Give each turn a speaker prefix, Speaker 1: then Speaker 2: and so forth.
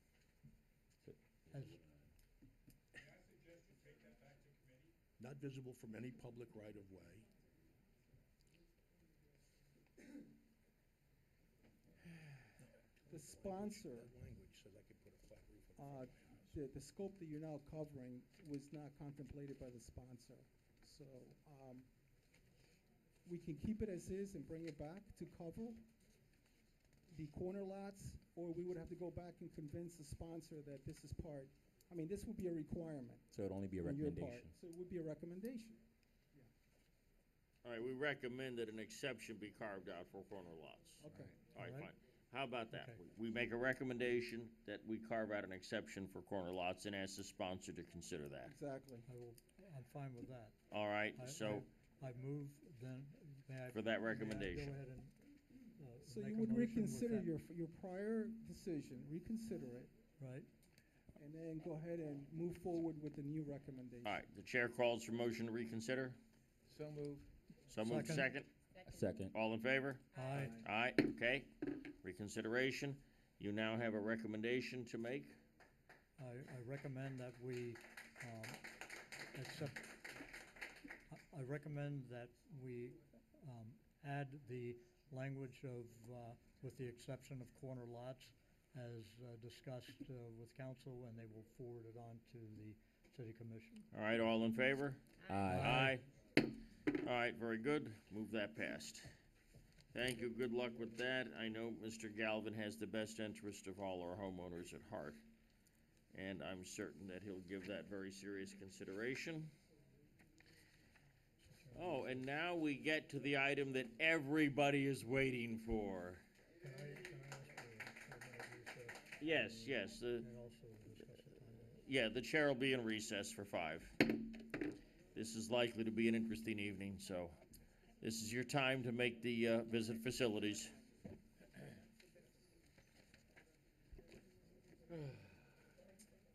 Speaker 1: not visible from any public right-of-way.
Speaker 2: The sponsor,
Speaker 1: That language says I could put a flat roof
Speaker 2: uh,
Speaker 1: on the front of my house.
Speaker 2: the, the scope that you're now covering was not contemplated by the sponsor. So, um, we can keep it as is and bring it back to cover the corner lots, or we would have to go back and convince the sponsor that this is part, I mean, this would be a requirement
Speaker 3: So it'd only be a
Speaker 2: on your part.
Speaker 3: recommendation.
Speaker 2: So it would be a recommendation.
Speaker 4: All right, we recommend that an exception be carved out for corner lots.
Speaker 2: Okay.
Speaker 4: All right,
Speaker 1: All right.
Speaker 4: fine. How about that?
Speaker 1: Okay.
Speaker 4: We- We make a recommendation that we carve out an exception for corner lots and ask the sponsor to consider that.
Speaker 2: Exactly.
Speaker 5: I will, I'm fine with that.
Speaker 4: All right,
Speaker 5: I-
Speaker 4: so
Speaker 5: I I move then, may I?
Speaker 4: For that
Speaker 5: may I
Speaker 4: recommendation.
Speaker 5: Go ahead and, uh,
Speaker 2: So
Speaker 5: make
Speaker 2: you
Speaker 5: a
Speaker 2: would
Speaker 5: motion with
Speaker 2: reconsider
Speaker 5: that,
Speaker 2: your, f- your prior decision, reconsider it,
Speaker 5: Right,
Speaker 2: and then go ahead and move forward with the new recommendation.
Speaker 4: All right, the chair calls for motion to reconsider.
Speaker 1: So moved.
Speaker 4: So moved second.
Speaker 5: Second.
Speaker 3: Second.
Speaker 4: All in favor?
Speaker 5: aye,
Speaker 4: Aye, okay. Reconsideration. You now have a recommendation to make.
Speaker 5: I, I recommend that we, um, accept, I, I recommend that we, um, add the language of, uh, with the exception of corner lots as uh, discussed, uh, with council, and they will forward it on to the city commission.
Speaker 4: All right, all in favor?
Speaker 3: Aye.
Speaker 4: Aye. All right, very good. Move that past. Thank you. Good luck with that. I know Mr. Galvin has the best interest of all our homeowners at heart. And I'm certain that he'll give that very serious consideration. Oh, and now we get to the item that everybody is waiting for.
Speaker 5: Can I, can I ask for a minute recess
Speaker 4: Yes, yes, the,
Speaker 5: and also discuss the timeline?
Speaker 4: yeah, the chair will be in recess for five. This is likely to be an interesting evening, so this is your time to make the uh, visit facilities.